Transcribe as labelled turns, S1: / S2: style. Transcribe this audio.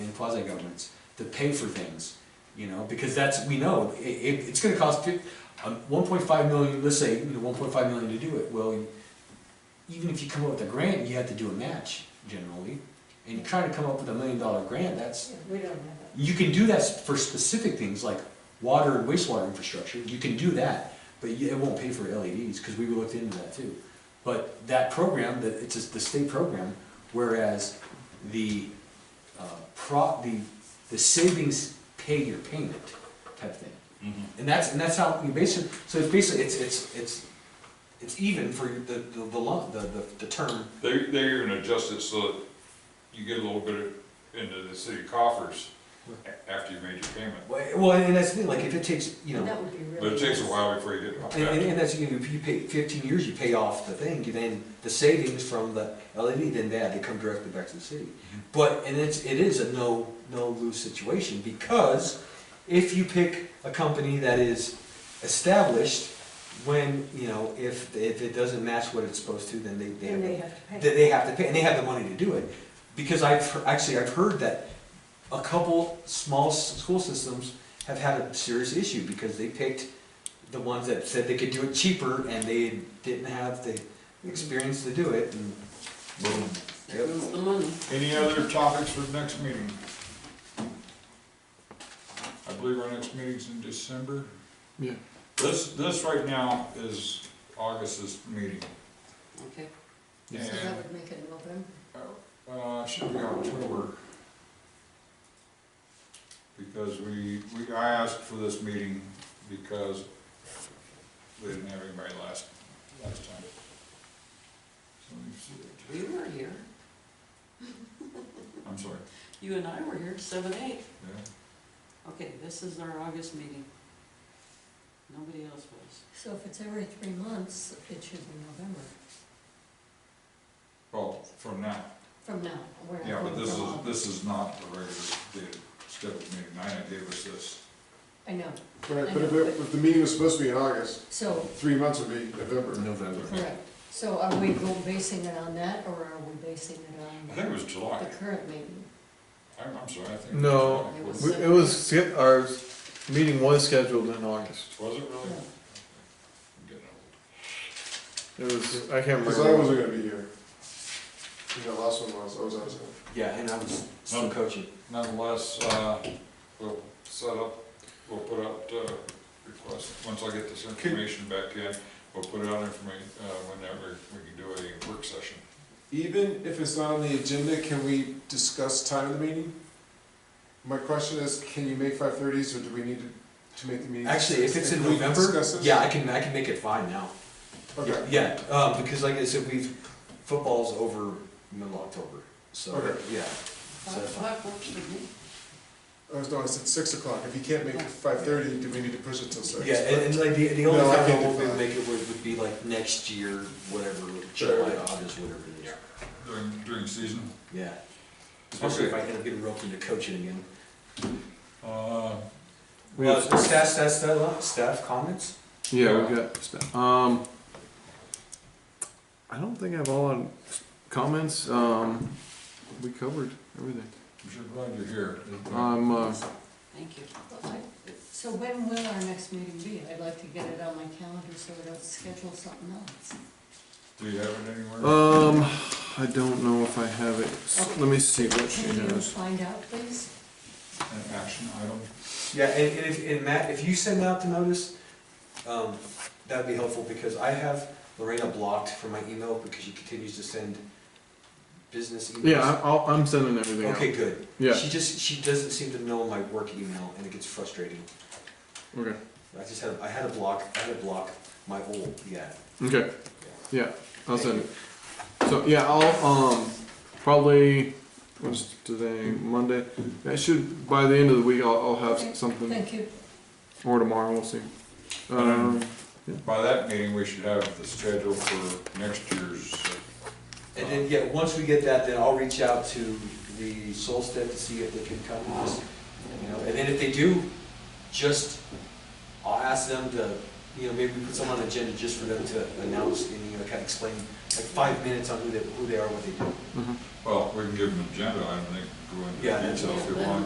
S1: and quasi-governments to pay for things, you know, because that's, we know, it, it, it's gonna cost fif, um, one point five million, let's say, you know, one point five million to do it, well, even if you come up with a grant, you have to do a match generally, and trying to come up with a million dollar grant, that's,
S2: We don't have it.
S1: you can do that for specific things like water and wastewater infrastructure, you can do that, but you- it won't pay for LEDs, because we looked into that too. But that program, that, it's just the state program, whereas the, uh, pro, the, the savings pay your payment type thing. And that's, and that's how you basically, so it's basically, it's, it's, it's, it's even for the, the, the lump, the, the, the term.
S3: They, they even adjust it so that you get a little bit into the city coffers a- after you made your payment.
S1: Well, and that's the thing, like, if it takes, you know.
S2: That would be really.
S3: But it takes a
S2: nice.
S3: while before you get it
S1: And, and,
S3: back.
S1: and that's, you know, if you pay fifteen years, you pay off the thing, you then, the savings from the LED, then that, they come directly back to the city. But, and it's, it is a no, no lose situation, because if you pick a company that is established, when, you know, if, if it doesn't match what it's supposed to, then they, they have.
S2: Then they have to pay.
S1: That they have to pay, and they have the money to do it, because I've, he- actually, I've heard that a couple small s- school systems have had a serious issue, because they picked the ones that said they could do it cheaper, and they didn't have the experience to do it, and. Yep.
S4: the money.
S3: Any other topics for the next meeting? I believe our next meeting's in December.
S5: Yeah.
S3: This, this right now is August's meeting.
S4: Okay.
S2: So
S3: And,
S2: that would make it November.
S3: uh, it should be October. Because we, we, I asked for this meeting because we didn't have anybody last, last time. So let me see
S4: We were here.
S3: it. I'm sorry,
S4: You and I were here, seven, eight.
S3: yeah.
S4: Okay, this is our August meeting. Nobody else was.
S2: So if it's every three months, it should be November,
S3: Well, from now,
S2: from now. We're not
S3: yeah, but
S2: going
S3: this
S2: for
S3: is,
S2: long.
S3: this is not the regular, the scheduled meeting, Nina gave us this.
S2: I know,
S5: Right, but if, it- if the meeting was supposed to be in August,
S2: so,
S5: three months would be November.
S1: November.
S2: correct. So are we go- basing it on that, or are we basing
S3: I
S2: it
S3: think it was July,
S2: on the current meeting?
S3: I'm, I'm sorry, I think. it was
S5: No.
S3: July.
S4: It
S3: Was
S4: was-
S5: We- It was, sch- our meeting was scheduled in August.
S3: it really? I'm
S2: No.
S3: getting old.
S5: It was, I can't
S6: Because I
S5: remember.
S6: wasn't gonna be here. Yeah, last one was, I was absent.
S1: Yeah, and I was
S6: Um,
S1: still coaching.
S3: Nonetheless, uh, we'll set up, we'll put out, uh, request, once I get this information back in, we'll put out information, uh, whenever we can do a work session.
S6: Even if it's not on the agenda, can we discuss time of the meeting? My question is, can you make five thirties, or do we need to, to make the meeting?
S1: Actually, if
S6: six?
S1: it's in
S6: Can we
S1: November,
S6: discuss this?
S1: yeah, I can, I can make it five now.
S6: Okay,
S1: Yeah, um, because like I said, we've, football's over middle October, so,
S6: Okay.
S1: yeah. So
S4: Five
S1: that's fine.
S4: o'clock works for me.
S6: I was, no, I said six o'clock, if you can't make it five thirty, do we need to push it till six?
S1: Yeah, and, and like the, the only
S6: No, I
S1: time
S6: can't
S1: I
S6: do
S1: won't be able
S6: five.
S1: to make it would, would be like next year, whatever,
S6: Sure.
S1: July, August, whatever it is.
S3: During, during season,
S1: Yeah. Especially if I
S3: Okay.
S1: end up getting roped into coaching again.
S3: uh,
S5: We
S1: Uh,
S5: have-
S1: staff, staff, staff, staff comments?
S5: Yeah, we've got stuff. Um, I don't think I have all on comments. Um, we covered everything.
S3: I'm sure glad you're here.
S5: Um, uh,
S4: Thank you.
S2: So when will our next meeting be? I'd like to get it on my calendar so I don't schedule something else.
S3: Do you have it anywhere?
S5: um, I don't know if I have it. S- Let me see what she
S2: Can you
S5: has.
S2: find out, please?
S3: An action item?
S1: Yeah, and, and if, and Matt, if you send out the notice, um, that'd be helpful, because I have Lorena blocked from my email, because she continues to send business emails.
S5: Yeah, I- I'll, I'm sending everything out.
S1: Okay, good.
S5: Yeah,
S1: She just, she doesn't seem to know my work email, and it gets frustrating.
S5: okay,
S1: I just had, I had a block, I had a block, my old, yeah.
S5: okay,
S1: yeah.
S5: yeah, I'll send it. So, yeah, I'll, um, probably, what's today, Monday? I should, by the end of the week, I'll, I'll have s- something,
S2: Thank you.
S5: or tomorrow, we'll see. Um,
S3: By that meeting, we should have the schedule for next year's, uh,
S1: And then, yeah, once we get that, then I'll reach out to the Solstead to see if they can come with us, you know, and then if they do, just, I'll ask them to, you know, maybe we put someone on the agenda just for them to announce, and, you know, kind of explain like five minutes on who they, who they are, what they do.
S5: Mhm.
S3: Well, we can give them an agenda, I don't think, go into
S1: Yeah,
S3: detail if you
S4: yeah.
S3: want.